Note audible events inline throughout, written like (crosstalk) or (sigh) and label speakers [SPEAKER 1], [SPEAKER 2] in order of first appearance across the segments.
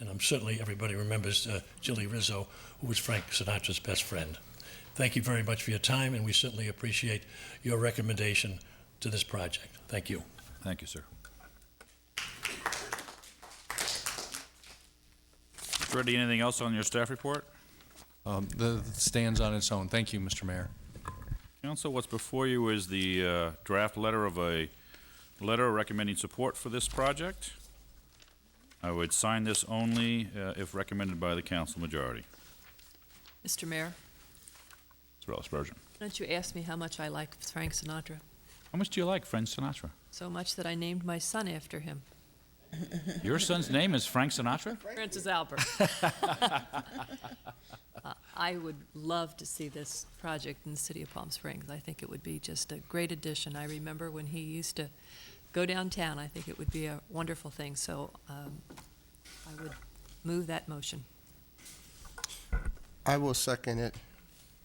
[SPEAKER 1] And I'm certainly, everybody remembers uh, Jilly Rizzo, who was Frank Sinatra's best friend. Thank you very much for your time, and we certainly appreciate your recommendation to this project. Thank you.
[SPEAKER 2] Thank you, sir. Ready, anything else on your staff report?
[SPEAKER 3] Um, the- the Stands on its own. Thank you, Mr. Mayor.
[SPEAKER 2] Council, what's before you is the uh, draft letter of a letter recommending support for this project. I would sign this only uh, if recommended by the council majority.
[SPEAKER 4] Mr. Mayor,
[SPEAKER 2] Mr. Ellis Bergen.
[SPEAKER 4] don't you ask me how much I like Frank Sinatra?
[SPEAKER 2] How much do you like Frank Sinatra?
[SPEAKER 4] So much that I named my son after him.
[SPEAKER 2] Your son's name is Frank Sinatra?
[SPEAKER 4] Francis Albert.
[SPEAKER 2] (laughs)
[SPEAKER 4] Uh, I would love to see this project in the city of Palm Springs. I think it would be just a great addition. I remember when he used to go downtown, I think it would be a wonderful thing. So um, I would move that motion.
[SPEAKER 5] I will second it,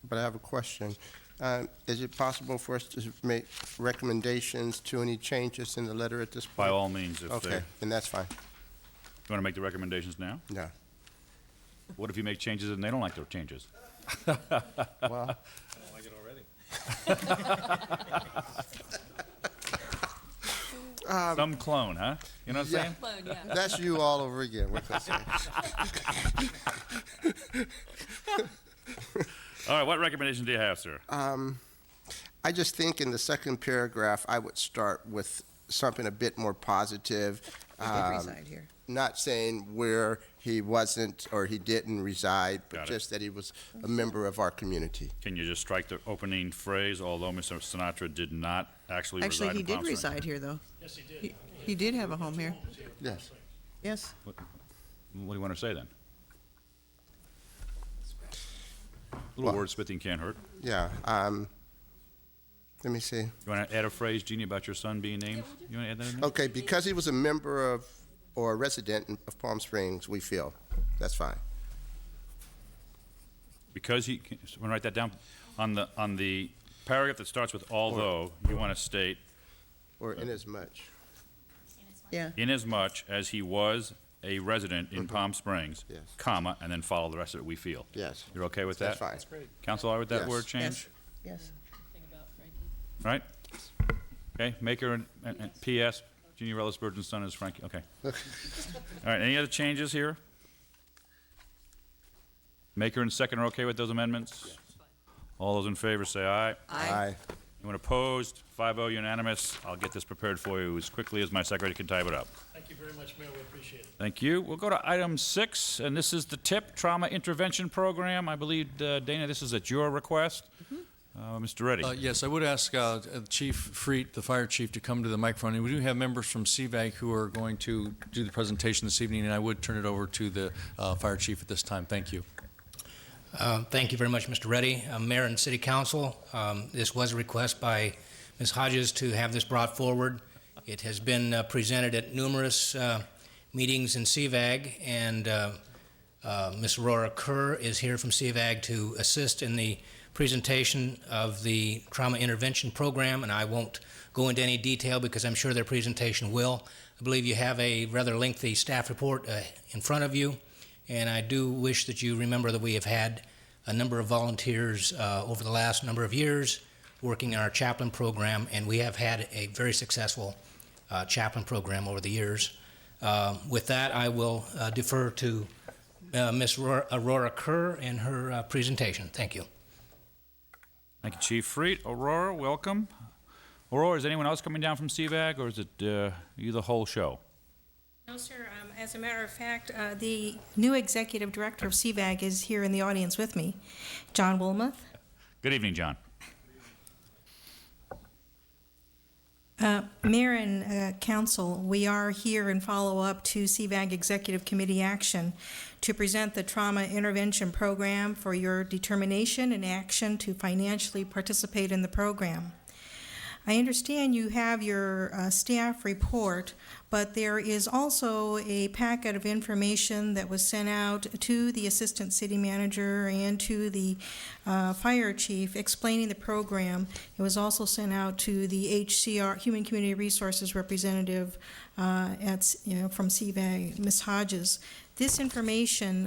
[SPEAKER 5] but I have a question. Uh, Is it possible for us to make recommendations to any changes in the letter at this point?
[SPEAKER 2] By all means, if they, you
[SPEAKER 5] Okay, then that's fine.
[SPEAKER 2] want to make the recommendations now?
[SPEAKER 5] No.
[SPEAKER 2] What if you make changes and they don't like their changes?
[SPEAKER 5] (laughs) Well,
[SPEAKER 2] Some clone, huh? You know what I'm
[SPEAKER 5] yeah.
[SPEAKER 2] saying?
[SPEAKER 5] that's you all over again. What can I say?
[SPEAKER 2] All right, what recommendation do you have, sir?
[SPEAKER 5] I just think in the second paragraph, I would start with something a bit more positive. um,
[SPEAKER 6] reside here.
[SPEAKER 5] Not saying where he wasn't or he didn't reside,
[SPEAKER 2] Got
[SPEAKER 5] but
[SPEAKER 2] it.
[SPEAKER 5] just that he was a member of our community.
[SPEAKER 2] Can you just strike the opening phrase, although Mr. Sinatra did not actually reside
[SPEAKER 6] Actually,
[SPEAKER 2] in
[SPEAKER 6] he did
[SPEAKER 2] Palm Springs?
[SPEAKER 6] reside here, though.
[SPEAKER 1] Yes, he
[SPEAKER 6] He- He did have a home here.
[SPEAKER 5] Yes.
[SPEAKER 6] Yes,
[SPEAKER 2] What do you want to say then? A little word spitting can't hurt.
[SPEAKER 5] Yeah. um, Let me see.
[SPEAKER 2] You want to add a phrase, Jeannie, about your son being named? You want to add that in there?
[SPEAKER 5] Okay, because he was a member of, or a resident in- of Palm Springs, we feel, that's fine.
[SPEAKER 2] Because he, want to write that down? On the, on the paragraph that starts with although, you want to state,
[SPEAKER 5] Or inasmuch,
[SPEAKER 6] yeah.
[SPEAKER 2] inasmuch as he was a resident in Palm Springs,
[SPEAKER 5] Mm-hmm. Yes.
[SPEAKER 2] comma, and then follow the rest of it, we feel.
[SPEAKER 5] yes.
[SPEAKER 2] You're okay with that?
[SPEAKER 5] That's fine.
[SPEAKER 2] Council, all right with that
[SPEAKER 5] Yes.
[SPEAKER 2] word change?
[SPEAKER 6] Yes, yes.
[SPEAKER 2] Right? Okay, Maker and- and and PS, Junior Ellis Burton's son is Frankie,
[SPEAKER 5] (laughs)
[SPEAKER 2] okay. All right, any other changes here? Maker and second are okay with those amendments? All those in favor say aye.
[SPEAKER 5] Aye.
[SPEAKER 2] Anyone opposed? 5-0 oh, unanimous. I'll get this prepared for you as quickly as my secretary can type it up.
[SPEAKER 1] Thank you very much, Mayor. We appreciate it.
[SPEAKER 2] Thank you. We'll go to item six, and this is the TIP Trauma Intervention Program. I believe, uh, Dana, this is at your request. Uh, Mr. Reddy?
[SPEAKER 3] Uh, Yes, I would ask uh, Chief Freet, the fire chief, to come to the microphone. And we do have members from CVAC who are going to do the presentation this evening, and I would turn it over to the uh, fire chief at this time. Thank you.
[SPEAKER 7] Um, Thank you very much, Mr. Reddy. Uh, Mayor and City Council, um, this was a request by Ms. Hodges to have this brought forward. It has been uh, presented at numerous uh, meetings in CVAG, and uh, uh, Ms. Aurora Kerr is here from CVAG to assist in the presentation of the trauma intervention program, and I won't go into any detail because I'm sure their presentation will. I believe you have a rather lengthy staff report uh, in front of you. And I do wish that you remember that we have had a number of volunteers uh, over the last number of years working in our chaplain program, and we have had a very successful uh, chaplain program over the years. Um, with that, I will uh, defer to uh, Ms. Aurora- Aurora Kerr and her uh, presentation. Thank you.
[SPEAKER 2] Thank you, Chief Freet. Aurora, welcome. Aurora, is anyone else coming down from CVAG, or is it uh, you the whole show?
[SPEAKER 8] No, sir. Um, As a matter of fact, uh, the new executive director of CVAG is here in the audience with me, John Wilmoth.
[SPEAKER 2] Good evening, John.
[SPEAKER 8] Mayor and uh, council, we are here in follow-up to CVAG Executive Committee action to present the Trauma Intervention Program for your determination and action to financially participate in the program. I understand you have your uh, staff report, but there is also a packet of information that was sent out to the Assistant City Manager and to the uh, Fire Chief explaining the program. It was also sent out to the HCR, Human Community Resources Representative uh, at, you know, from CVAG, Ms. Hodges. This information